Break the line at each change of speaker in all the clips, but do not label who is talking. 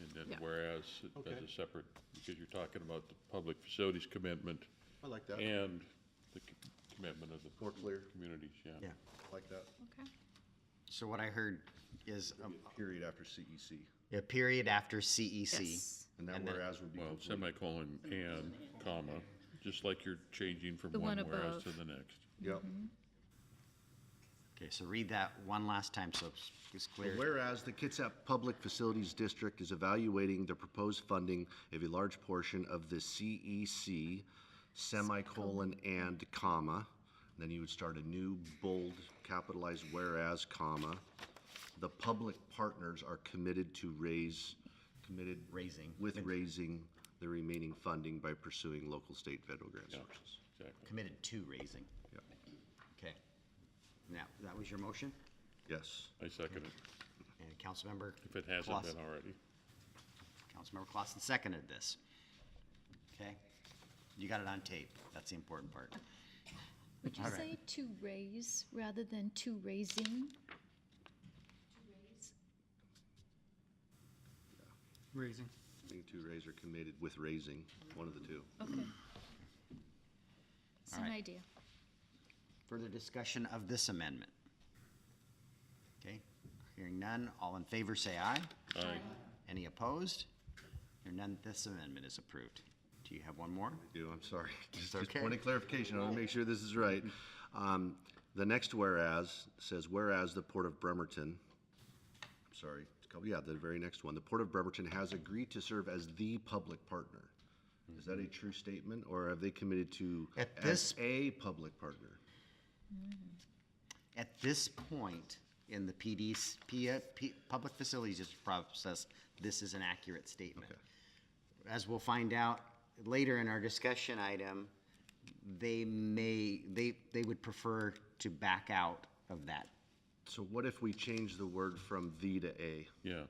And then
Yeah.
whereas, as
Okay.
a separate, because you're talking about the public facilities commitment
I like that. I
and the c- commitment of the.
More clear.
Communities, yeah.
Yeah.
like that.
Okay.
So what I heard is um,
Period after CEC.
a period after E CEC.
Yes.
And that
And then-
whereas would be
Well,
complete.
semicolon and comma, just like you're changing from
The
one
one
whereas to
above.
the next.
Yep.
Okay, so read that one last time so it's- it's clear.
Whereas the Kitsap Public Facilities District is evaluating the proposed funding of a large portion of the CEC, semicolon and comma, then you would start a new bold capitalized whereas comma. The public partners are committed to raise, committed.
Raising.
With raising the remaining funding by pursuing local, state, federal grant sources.
Exactly.
Committed to raising.
Yeah.
Okay. Now, that was your motion?
Yes.
I second it,
And Councilmember?
if it hasn't
Clausen-
been already.
Councilmember Clausen seconded this. Okay? You got it on tape. That's the important part.
Would you
All right.
say to raise rather than to raising?
Raising.
I think to raise or committed with raising, one of the two.
Mm-hmm.
Okay. It's an
right.
idea.
Further discussion of this amendment? Okay, hearing none, all in favor say aye.
Aye.
Any opposed? Hearing none, this amendment is approved. Do you have one more?
you, I'm sorry. Just, just
okay. Mm-hmm.
point of clarification, I want to make sure this is right. Um, the next whereas says, whereas the Port of Bremerton, sorry, it's called- yeah, the very next one, the Port of Bremerton has agreed to serve as the public partner. Is that a true statement, or have they committed to
Mm-hmm. At
as
this-
a public partner?
At this point in the PD's, P, P- Public Facilities District process, this is an accurate statement. As we'll find out later in our discussion item, they may, they, they would prefer to back out of that.
So what if we change the word from the to a?
Yeah,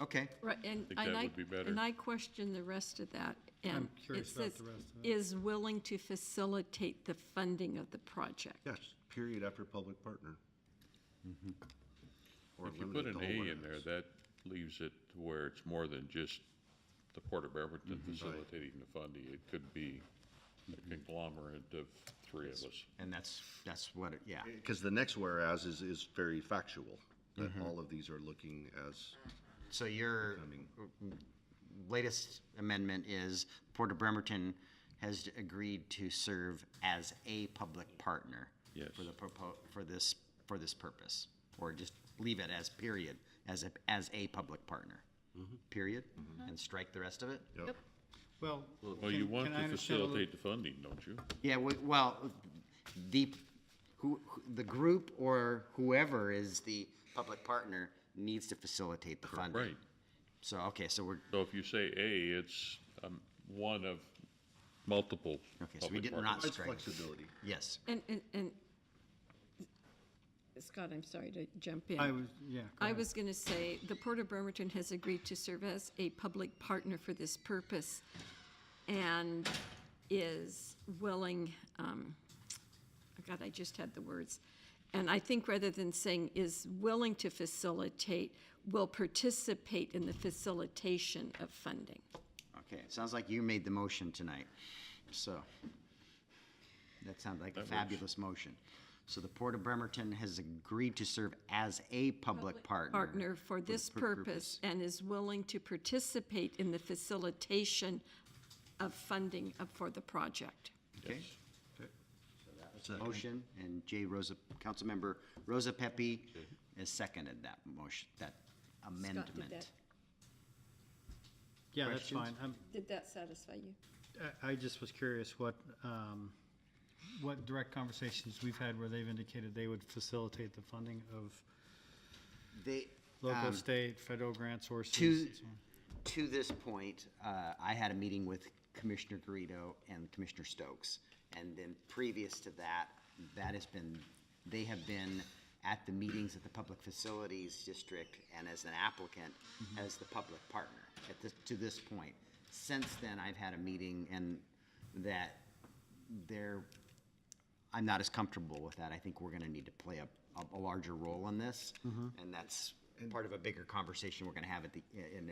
Okay,
Right, and
Think
and
that
I,
would be better.
and I question the rest of that. and it
curious about
says
the rest of it.
Is willing to facilitate the funding of the project.
Yes, period after public partner.
Mm-hmm.
Or
if you
eliminate
put an
the whole
A in there,
whereas.
that leaves it where it's more than just the Port of Bremerton facilitating the funding. It could be a conglomerate of three of us.
and that's, that's what, it- yeah.
Because the next whereas is, is very factual, that
Mm-hmm.
all of these are looking as,
So your latest amendment is Port of Bremerton has agreed to serve as a public partner.
Yes.
For the propo, for this, for this purpose, or just leave it as period, as a, as a public partner.
Mm-hmm.
Period, and strike the rest of it?
yep.
Well.
Well, Oh, you
can-
want
can I
to
understand a little-
facilitate the funding, don't you?
Yeah, we- well, the, who, who- the group or whoever is the public partner needs to facilitate the funding.
Right.
So, okay, so we're,
So if you say A, it's um, one of multiple.
okay, so we
public
did
partners.
not
It's
strike.
flexibility.
Yes.
And, and, and, Scott, I'm sorry to jump in.
I was, yeah. go
I
ahead.
was going to say, the Port of Bremerton has agreed to serve as a public partner for this purpose and is willing, um, oh God, I just had the words. And I think rather than saying is willing to facilitate, will participate in the facilitation of funding.
Okay, it sounds like you made the motion tonight, so. That sounds like a fabulous motion. So the Port of Bremerton has agreed to serve as a public partner.
Partner for this purpose and is willing to participate in the facilitation of funding of- for the project.
Okay,
Second.
motion, and Jay Rosa, Councilmember Rosa Pepe has seconded that motion, that amendment.
that.
Yeah, that's
questions?
fine. I'm,
Did that satisfy you?
I- I just was curious what, um, what direct conversations we've had where they've indicated they would facilitate the funding of
They,
local,
um,
state, federal grant
To,
sources.
to this point, uh, I had a meeting with Commissioner Garrido and Commissioner Stokes. And then previous to that, that has been, they have been at the meetings at the Public Facilities District and as an applicant, as the public partner at this, to this point. Since then, I've had a meeting and that they're I'm not as comfortable with that. I think we're gonna need to play a, a, a larger role in this. And that's part of a bigger conversation we're gonna have at the, in,